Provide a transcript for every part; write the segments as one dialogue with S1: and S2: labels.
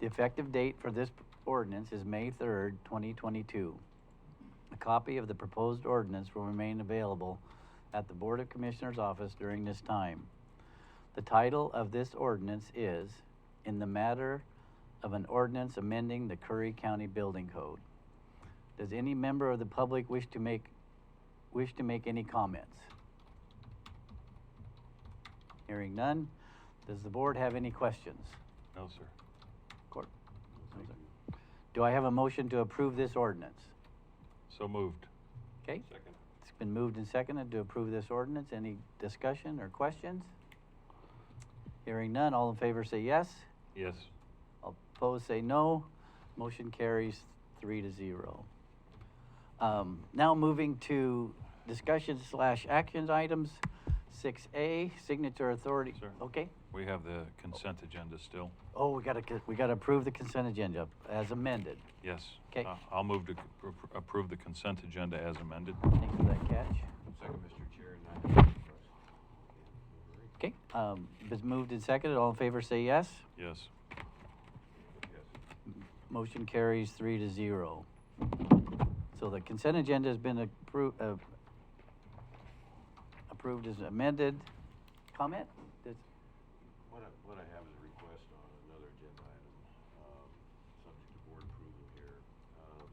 S1: The effective date for this ordinance is May third, twenty twenty-two. A copy of the proposed ordinance will remain available at the Board of Commissioners' office during this time. The title of this ordinance is In the Matter of an Ordinance Amending the Curry County Building Code. Does any member of the public wish to make, wish to make any comments? Hearing none, does the board have any questions?
S2: No, sir.
S1: Court. Do I have a motion to approve this ordinance?
S2: So moved.
S1: Okay,
S2: Second.
S1: it's been moved and seconded to approve this ordinance. Any discussion or questions? Hearing none, all in favor say yes.
S2: Yes.
S1: All Opposed say no. Motion carries three to zero. Um, Now moving to discussion slash actions items. Six A, signature authority.
S2: Sir.
S1: Okay.
S2: We have the consent agenda still.
S1: Oh, we gotta, c- we gotta approve the consent agenda as amended.
S2: Yes.
S1: 'Kay.
S2: Uh, I'll move to c- appro- approve the consent agenda as amended.
S1: Thanks for that catch.
S3: Second, Mr. Chair, and I.
S1: Okay, um, it's moved and seconded. All in favor say yes.
S2: Yes.
S1: Motion carries three to zero. So the consent agenda has been approved, uh, approved as amended. Comment? Does-
S3: What I, what I have is a request on another agenda item, um, subject to board approval here. Um,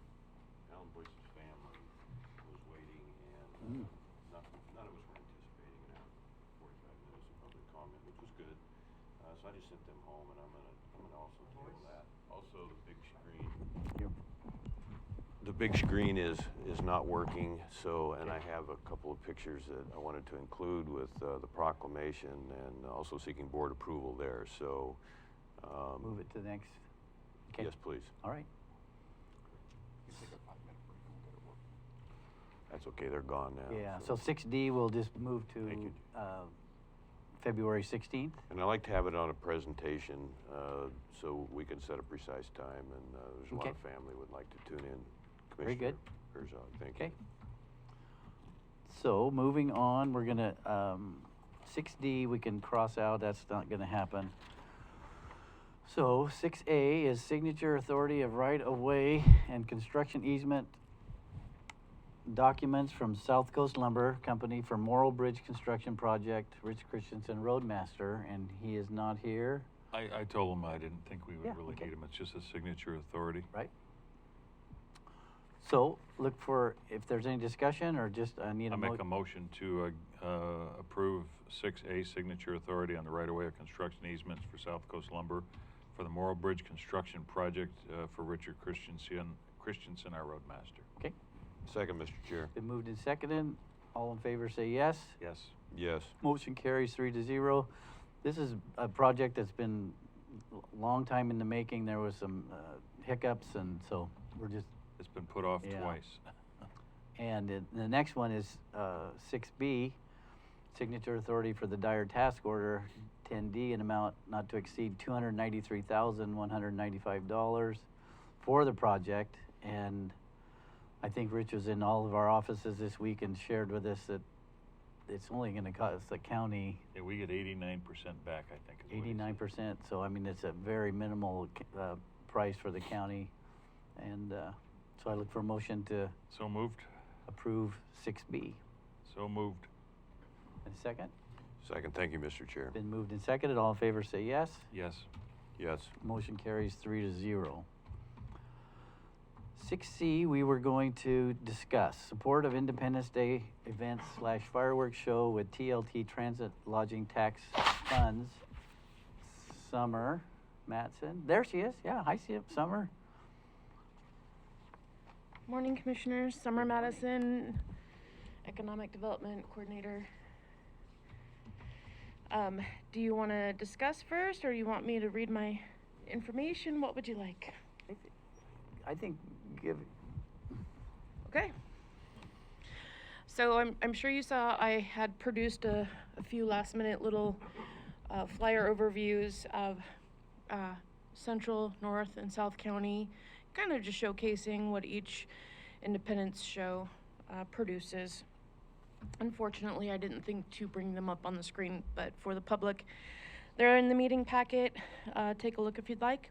S3: Alan Boyce's family was waiting and,
S1: Mm.
S3: uh, not, none of us were anticipating an hour, and forty-five minutes of public comment, which was good. Uh, so I just sent them home and I'm gonna, I'm gonna also table that. Also, the big screen.
S1: Here.
S3: The big screen is, is not working, so, and I have a couple of pictures that I wanted to include with uh, the proclamation and also seeking board approval there, so. um,
S1: Move it to the next. Okay.
S3: Yes, please.
S1: All right.
S3: That's okay, they're gone now.
S1: Yeah, so six D will just move
S3: Thank
S1: to,
S3: you.
S1: uh, February sixteenth.
S3: And I like to have it on a presentation, uh, so we can set a precise time, and uh, there's a lot
S1: Okay.
S3: of family would like to tune in.
S1: Very good.
S3: Commissioner Herzog, thank you.
S1: Okay. So moving on, we're gonna, um, six D, we can cross out, that's not gonna happen. So six A is signature authority of right of way and construction easement documents from South Coast Lumber Company for Morro Bridge Construction Project, Rich Christensen Roadmaster, and he is not here,
S2: I, I told him I didn't think we
S1: Yeah,
S2: would really
S1: okay.
S2: need him. It's just a signature authority.
S1: right? So look for, if there's any discussion or just, I need
S2: I
S1: a
S2: make a
S1: mo-
S2: motion to uh, uh, approve six A signature authority on the right-of-way of construction easements for South Coast Lumber for the Morro Bridge Construction Project uh, for Richard Christensen, Christensen, our roadmaster.
S1: Okay,
S3: Second, Mr. Chair.
S1: been moved and seconded, all in favor say yes.
S2: Yes.
S3: Yes.
S1: Motion carries three to zero. This is a project that's been l- long time in the making. There was some uh, hiccups and so we're just,
S2: It's been put off
S1: Yeah.
S2: twice.
S1: and the- the next one is uh, six B, signature authority for the dire task order, ten D, an amount not to exceed two hundred ninety-three thousand, one hundred ninety-five dollars for the project. And I think Rich was in all of our offices this week and shared with us that it's only gonna cost the county
S2: Yeah, we get eighty-nine percent back, I think. is what he said.
S1: Eighty-nine percent, so I mean, it's a very minimal, c- uh, price for the county. And, uh, so I look for a motion to
S2: So moved,
S1: approve six B.
S2: so moved.
S1: And a second?
S3: Second, thank you, Mr. Chair.
S1: Been moved and seconded, all in favor say yes.
S2: Yes,
S3: Yes.
S1: Motion carries three to zero. Six C, we were going to discuss support of Independence Day events slash fireworks show with TLT Transit Lodging Tax Funds. Summer Matson, there she is, yeah, hi, Su- Summer.
S4: Morning, Commissioners. Summer Madison, Economic Development Coordinator. Um, do you want to discuss first, or you want me to read my information? What would you like?
S1: I think, give,
S4: Okay. So I'm, I'm sure you saw I had produced a, a few last minute little uh, flyer overviews of uh, Central, North, and South County, kind of just showcasing what each Independence show uh, produces. Unfortunately, I didn't think to bring them up on the screen, but for the public, they're in the meeting packet. Uh, take a look if you'd like.